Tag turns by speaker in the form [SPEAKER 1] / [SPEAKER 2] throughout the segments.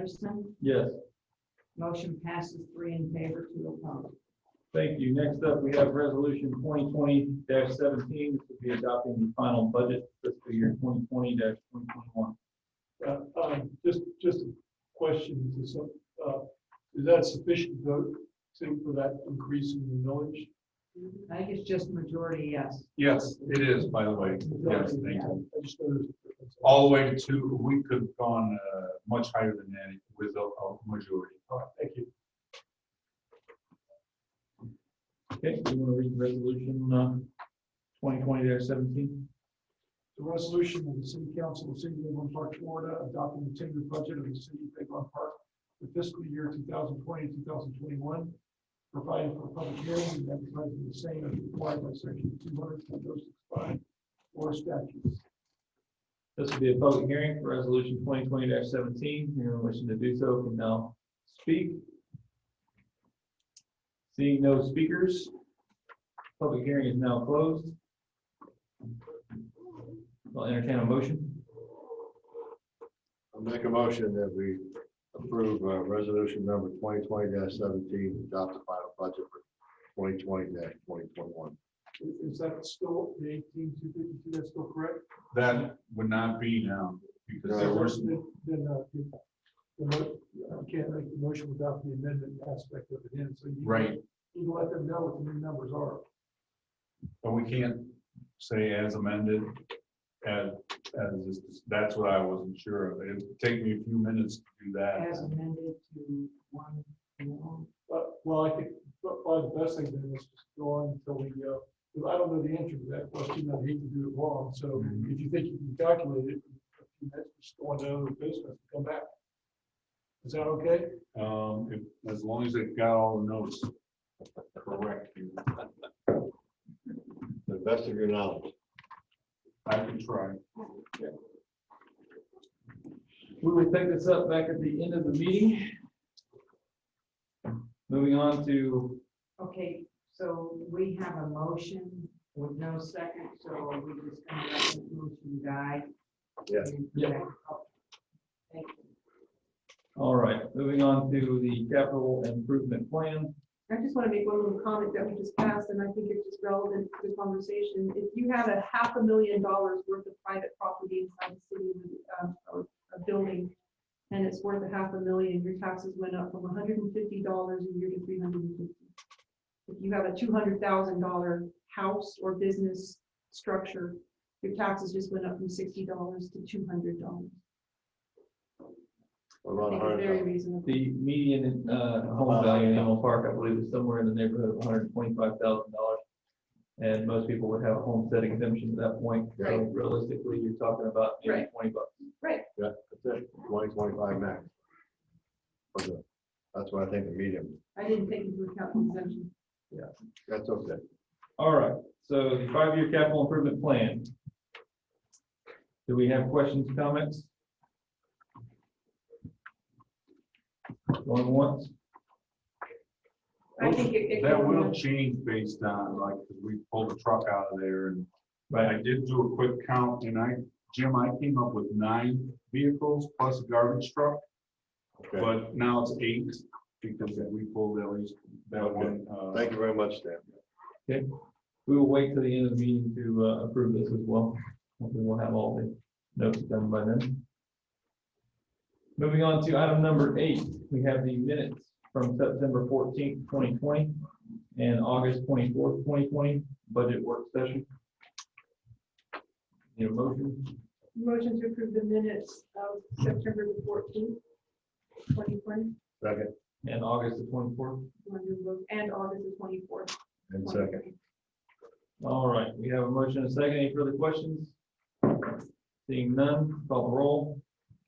[SPEAKER 1] Anderson.
[SPEAKER 2] Yes.
[SPEAKER 1] Motion passes three in favor, two opposed.
[SPEAKER 2] Thank you. Next up, we have resolution twenty twenty seventeen, which will be adopting the final budget fiscal year twenty twenty twenty twenty-one.
[SPEAKER 3] Uh, uh, just, just a question, is this, uh, is that sufficient vote to, for that increase in the millage?
[SPEAKER 1] I think it's just majority, yes.
[SPEAKER 4] Yes, it is, by the way. Yes, thank you.
[SPEAKER 3] I just noticed.
[SPEAKER 4] All the way to, we could have gone uh, much higher than that with a a majority.
[SPEAKER 3] All right, Thank you.
[SPEAKER 2] Okay, you want to read resolution uh, twenty twenty seventeen?
[SPEAKER 3] The resolution of the City Council of the City of Avon Park, Florida, adopting the tentative budget of the City of Avon Park for fiscal year 2020-2021, providing for public hearings and advertising the same as required by section two hundred point oh six five or statutes.
[SPEAKER 2] This will be a public hearing for resolution twenty twenty seventeen. Anyone wishing to do so can now speak. Seeing no speakers, public hearing is now closed. I'll entertain a motion.
[SPEAKER 5] I'll make a motion that we approve uh, resolution number twenty twenty seventeen, adopt the final budget for twenty twenty twenty twenty-one.
[SPEAKER 3] Is- Is that still the eighteen two fifty-two, that's still correct?
[SPEAKER 4] That would not be now because there was,
[SPEAKER 3] Then, then, uh, you- the mo- I can't make the motion without the amendment aspect of it in, so you.
[SPEAKER 4] right,
[SPEAKER 3] You can let them know what the new numbers are.
[SPEAKER 4] but we can't say as amended. As, as, is- that's what I wasn't sure of. It'd take me a few minutes to do
[SPEAKER 1] As
[SPEAKER 4] that.
[SPEAKER 1] amended to one, no.
[SPEAKER 3] But, well, I think, but probably the best thing then is just go on until we, uh, because I don't know the answer to that question, I hate to do it wrong, so
[SPEAKER 4] Mhm.
[SPEAKER 3] if you think you can calculate it, that's just go on to another business, come back. Is that okay?
[SPEAKER 4] Um, if- as long as it got all the notes correct here,
[SPEAKER 5] To the best of your knowledge.
[SPEAKER 4] I can try.
[SPEAKER 2] We will pick this up back at the end of the meeting. Moving on to,
[SPEAKER 1] Okay, so we have a motion with no second, so are we just gonna let the motion die.
[SPEAKER 5] Yes.
[SPEAKER 2] Yeah.
[SPEAKER 1] Thank you.
[SPEAKER 2] all right, moving on to the capital improvement plan.
[SPEAKER 6] I just want to make one little comment that we just passed, and I think it's just relevant to the conversation. If you have a half a million dollars worth of private property inside the city, um, or a building, and it's worth a half a million, your taxes went up from hundred and fifty dollars a year to three hundred and fifty. If you have a two hundred thousand dollar house or business structure, your taxes just went up from sixty dollars to two hundred dollars.
[SPEAKER 5] Around a hundred
[SPEAKER 6] Very
[SPEAKER 5] thousand.
[SPEAKER 6] reasonable.
[SPEAKER 2] The median uh, home value in Animal Park, I believe, is somewhere in the neighborhood of hundred and twenty-five thousand dollars. And most people would have a homestead exemption at that point. So
[SPEAKER 6] Right.
[SPEAKER 2] realistically, you're talking about maybe
[SPEAKER 6] Right.
[SPEAKER 2] twenty bucks.
[SPEAKER 5] Yeah, that's it, twenty twenty-five max. For the- That's what I think the medium,
[SPEAKER 6] I didn't take into account the exemption.
[SPEAKER 5] that's okay.
[SPEAKER 2] All right, so the five-year capital improvement plan. Do we have questions, comments? Going once?
[SPEAKER 6] I think it- it
[SPEAKER 4] That
[SPEAKER 6] can-
[SPEAKER 4] will change based on, like, 'cause we pulled the truck out of there and, but I did do a quick count and I, Jim, I came up with nine vehicles plus a garbage truck,
[SPEAKER 5] Okay.
[SPEAKER 4] but now it's eight because we pulled at least that one. uh,
[SPEAKER 5] Thank you very much, Stan.
[SPEAKER 2] We will wait till the end of the meeting to uh, approve this as well. Hopefully we'll have all the notes done by then. Moving on to item number eight, we have the minutes from September fourteenth, twenty twenty, and August twenty-fourth, twenty twenty, budget work session. Need a motion?
[SPEAKER 6] Motion to approve the minutes of September the fourteenth, twenty twenty,
[SPEAKER 5] Second
[SPEAKER 2] And August the twenty-fourth?
[SPEAKER 6] and August the twenty-fourth.
[SPEAKER 5] and second.
[SPEAKER 2] All right, we have a motion and a second. Any further questions? Seeing none, call the roll.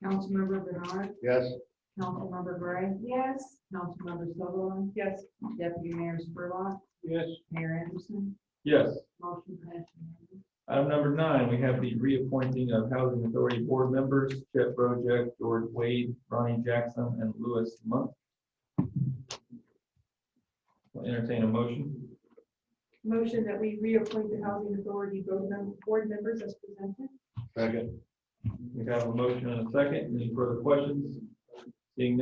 [SPEAKER 1] Councilmember Bernard,
[SPEAKER 5] Yes,
[SPEAKER 1] Councilmember Gray,
[SPEAKER 6] Yes.
[SPEAKER 1] Councilmember Sutherland,
[SPEAKER 6] Yes.
[SPEAKER 1] Deputy Mayor Spurlock,
[SPEAKER 2] Yes.
[SPEAKER 1] Mayor Anderson,
[SPEAKER 2] Yes.
[SPEAKER 1] motion passes. unanimously.
[SPEAKER 2] Item number nine, we have the reappointing of Housing Authority Board members, Chet Brojack, George Wade, Ronnie Jackson, and Louis Monk. We'll Entertain a motion.
[SPEAKER 6] Motion that we reappoint the Housing Authority board mem- board members as presented.
[SPEAKER 5] second.
[SPEAKER 2] We have a motion and a second. Any further questions?